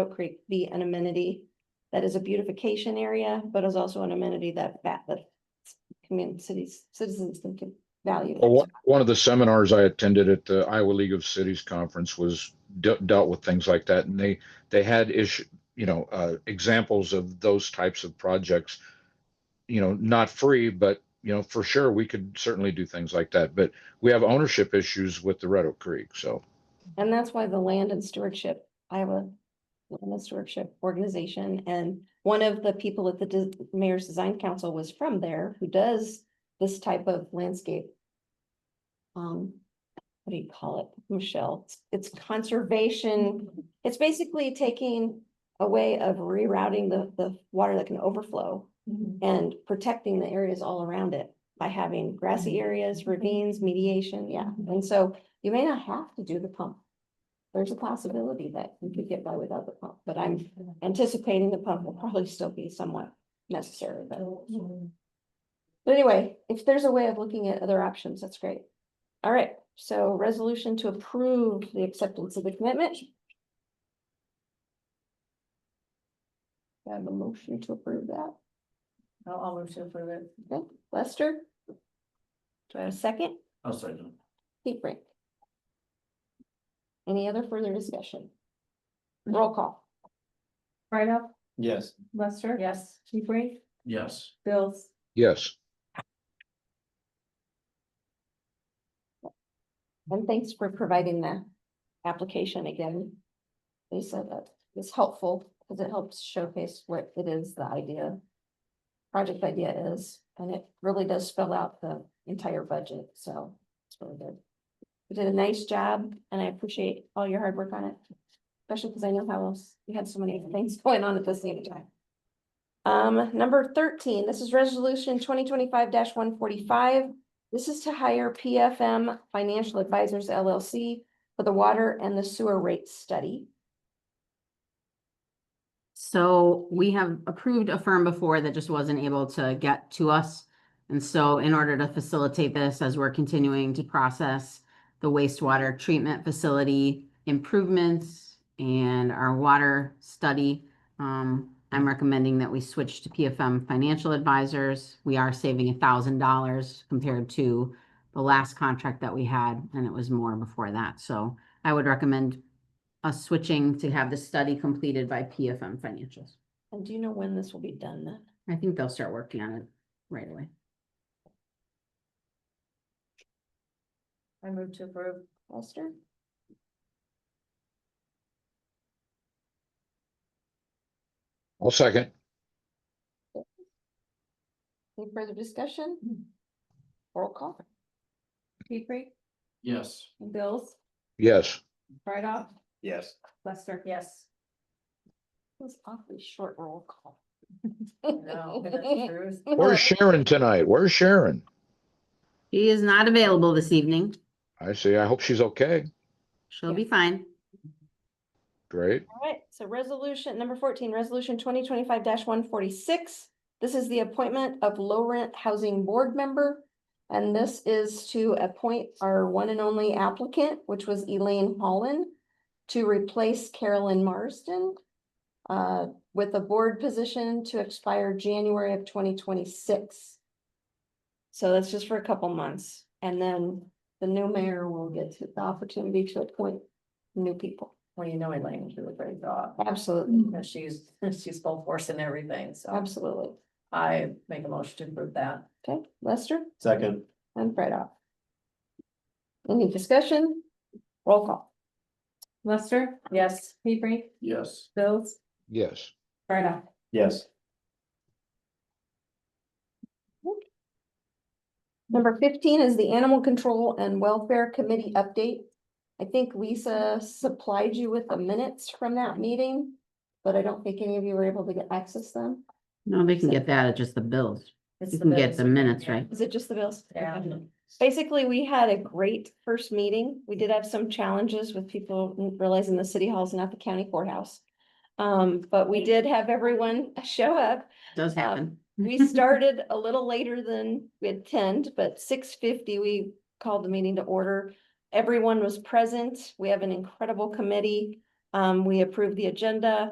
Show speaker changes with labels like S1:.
S1: Oak Creek be an amenity that is a beautification area, but is also an amenity that that that community cities, citizens can can value.
S2: Well, one- one of the seminars I attended at the Iowa League of Cities Conference was de- dealt with things like that, and they, they had issue, you know, uh, examples of those types of projects. You know, not free, but, you know, for sure, we could certainly do things like that, but we have ownership issues with the Red Oak Creek, so.
S1: And that's why the Land and Stewardship, Iowa Land and Stewardship Organization, and one of the people at the Dis- Mayor's Design Council was from there, who does this type of landscape. Um, what do you call it, Michelle? It's it's conservation, it's basically taking a way of rerouting the, the water that can overflow and protecting the areas all around it by having grassy areas, ravines, mediation, yeah. And so you may not have to do the pump. There's a possibility that you could get by without the pump, but I'm anticipating the pump will probably still be somewhat necessary, but. But anyway, if there's a way of looking at other options, that's great. All right, so resolution to approve the acceptance of the commitment. Do I have a motion to approve that.
S3: I'll, I'll move to approve it.
S1: Okay, Lester? Do I have a second?
S4: I'll second.
S1: Pete Brink? Any other further discussion? Roll call.
S5: Right up,
S4: Yes.
S5: Lester?
S3: Yes.
S5: Chief Ray?
S4: Yes.
S5: Bills?
S2: Yes,
S1: And thanks for providing the application again. They said that it's helpful because it helps showcase what it is, the idea. Project idea is, and it really does spell out the entire budget, so it's really good. You did a nice job and I appreciate all your hard work on it. Especially because I know how else you had so many things going on at the same time. Um, number thirteen, this is resolution twenty twenty-five one forty-five. This is to hire PFM Financial
S3: Mm-hmm.
S1: Advisors LLC for the water and the sewer rate study.
S6: So we have approved a firm before that just wasn't able to get to us. And so in order to facilitate this, as we're continuing to process the wastewater treatment facility improvements and our water study, um, I'm recommending that we switch to PFM Financial Advisors. We are saving a thousand dollars compared to the last contract that we had, and it was more before that. So I would recommend us switching to have the study completed by PFM Financials.
S1: And do you know when this will be done then?
S6: I think they'll start working on it right away.
S3: I move to approve.
S1: Lester?
S2: I'll second.
S1: Any further discussion?
S3: Mm-hmm.
S1: Roll call.
S5: Chief Ray?
S4: Yes.
S5: Bills?
S2: Yes,
S5: Right up,
S4: Yes.
S5: Lester?
S3: Yes.
S1: It was awfully short roll call.
S3: No, but that's true.
S2: where's Sharon tonight? Where's Sharon?
S6: He is not available this evening.
S2: I see, I hope she's okay,
S6: She'll be fine.
S2: great,
S1: All right, so resolution number fourteen, resolution twenty twenty-five one forty-six. This is the appointment of low rent housing board member. And this is to appoint our one and only applicant, which was Elaine Holland, to replace Carolyn Marsden uh, with a board position to expire January of twenty twenty-six. So that's just for a couple months, and then the new mayor will get to- the opportunity to appoint new people.
S3: Well, you know Elaine, she was very thought,
S1: Absolutely.
S3: and she's, she's full force in everything, so
S1: Absolutely.
S3: I make a motion to approve that.
S1: Okay, Lester
S4: Second.
S1: and Fred off. Any discussion? Roll call.
S5: Lester?
S3: Yes.
S5: Chief Ray?
S4: Yes.
S5: Bills?
S2: yes.
S5: Right up.
S4: Yes.
S1: Number fifteen is the Animal Control and Welfare Committee update. I think Lisa supplied you with the minutes from that meeting, but I don't think any of you were able to get access them.
S6: No, they can get that at just the bills.
S3: it's
S6: You
S3: the
S6: can get
S3: bills.
S6: the minutes, right?
S1: Is it just the bills?
S3: Yeah.
S1: Basically, we had a great first meeting. We did have some challenges with people realizing the city hall is not the county courthouse. Um, but we did have everyone show up
S6: Does
S1: Um,
S6: happen.
S1: We started a little later than we had planned, but six fifty, we called the meeting to order. Everyone was present. We have an incredible committee. Um, we approved the agenda.